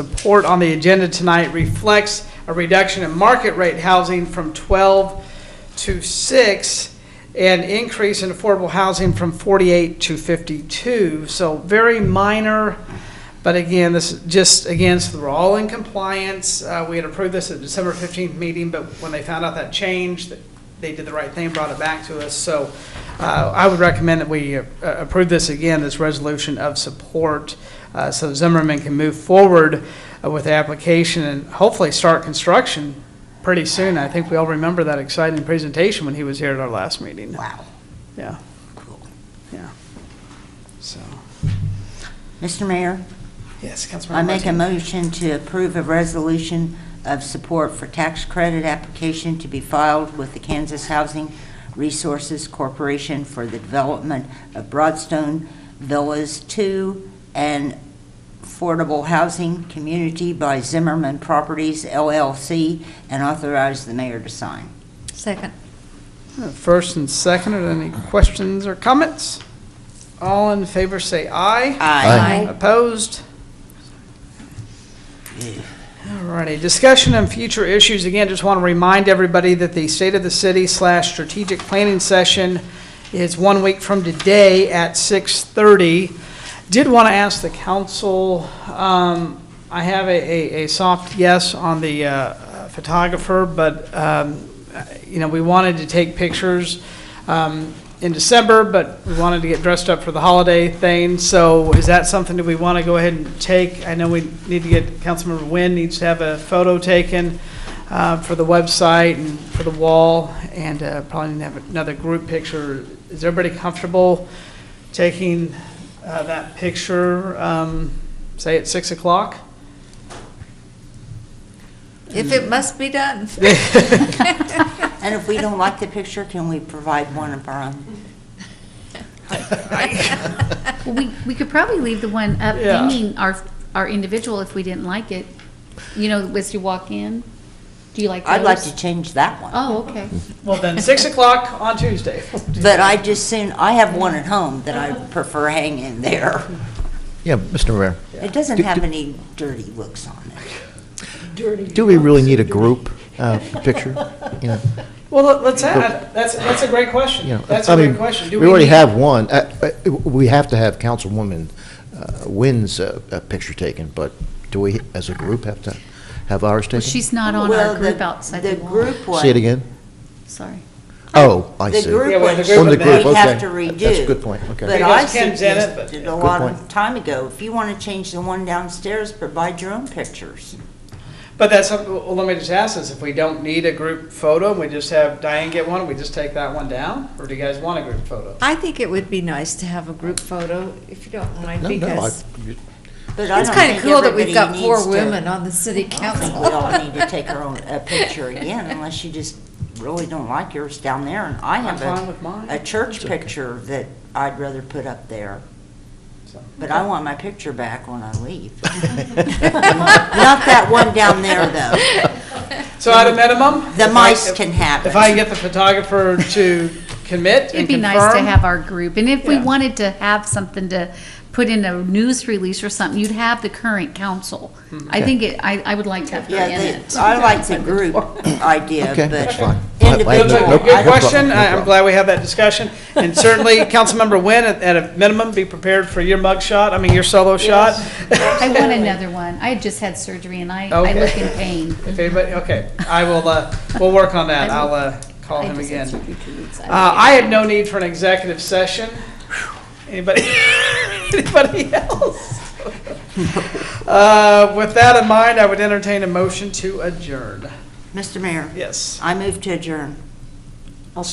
Support on the agenda tonight reflects a reduction in market rate housing from 12 to 6, and increase in affordable housing from 48 to 52. So very minor, but again, this is just, again, so we're all in compliance. Uh, We had approved this at December 15th meeting, but when they found out that change, that they did the right thing, brought it back to us. So uh, I would recommend that we uh, approve this again, this resolution of support, uh, so Zimmerman can move forward uh, with the application and hopefully start construction pretty soon. I think we all remember that exciting presentation when he was here at our last meeting. Wow. Yeah. Yeah. So, Mr. Mayor, yes, Councilmember I make a Martinez. motion to approve a resolution of support for tax credit application to be filed with the Kansas Housing Resources Corporation for the development of Broadstone Villas Two and affordable housing community by Zimmerman Properties LLC and authorize the mayor to sign. Second. Uh, First and second, are there any questions or comments? All in favor, say aye. Aye. Opposed? Alrighty, discussion on future issues. Again, just want to remind everybody that the State of the City slash Strategic Planning Session is one week from today at 6:30. Did want to ask the council, um, I have a, a- a soft yes on the uh, uh, photographer, but, um, you know, we wanted to take pictures um, in December, but we wanted to get dressed up for the holiday thing. So is that something that we want to go ahead and take? I know we need to get, Councilmember Nguyen needs to have a photo taken uh, for the website and for the wall, and uh, probably need to have another group picture. Is everybody comfortable taking uh, that picture, um, say at 6 o'clock? If it must be done. And if we don't like the picture, can we provide one of our own? Well, we, we could probably leave the one up Yeah. hanging our, our individual if we didn't like it. You know, as you walk in, do you like those? I'd like to change that one. Oh, okay. Well, then, 6 o'clock on Tuesday. But I just soon, I have one at home that I prefer hanging there. Yeah, Mr. Rivera, It doesn't have any dirty looks on it. do we really need a group uh, picture? You know, Well, let- let's add, that's, that's a great question. you know, That's I a great mean, question. Do We already need- have one. Uh, uh, We have to have Councilwoman uh, Wynn's uh, uh, picture taken, but do we, as a group, have to have ours taken? See She's not on Well, our the- group outside the The wall. group one. it again? Sorry. Oh, I The see. Yeah, group well, one, the we group one they okay. have to redo. That's a good point, okay. But Because I Ken's in it, but- suggested a Good lot of point. time ago, if you want to change the one downstairs, provide your own pictures. But that's, well, let me just ask this, if we don't need a group photo, and we just have Diane get one, we just take that one down? Or do you guys want a group photo? I think it would be nice to have a group photo, if you don't mind, No, no, I- because But I it's don't kind of think cool that we've everybody got four needs to- women on the city I don't think council. we all need to take our own, a picture again, unless you just really don't like yours down there. And I I'm have fine a, with mine. a church picture that I'd rather put up there. So- But I want my picture back when I leave. Not that one down there, though. So at a minimum? The if I- mice can have If I can it. get the photographer to commit It'd and be nice to confirm, have our group, and if we Yeah. wanted to have something to put in a news release or something, you'd have the current council. I think it, I, I would like to have her Yeah, in it. they- I like the group idea, Okay, that's but fine. I- I have Looks no- like individual, a no good I- problem, question. no I- I'm problem. glad we had that discussion. And certainly, Councilmember Wynn, at at a minimum, be prepared for your mug shot, I mean, your solo shot. I want another one. I had just had surgery and I, I look in pain. If anybody, okay, I will, uh, we'll work on that. I'll uh, call I him just again. had surgery two weeks. I Uh, was I have no need for an executive session. Anybody, anybody else? Uh, With that in mind, I would entertain a motion to adjourn. Mr. Mayor, Yes. I move to adjourn. All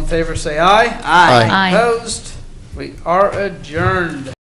in favor, say aye. Aye. Aye. Opposed? We are adjourned.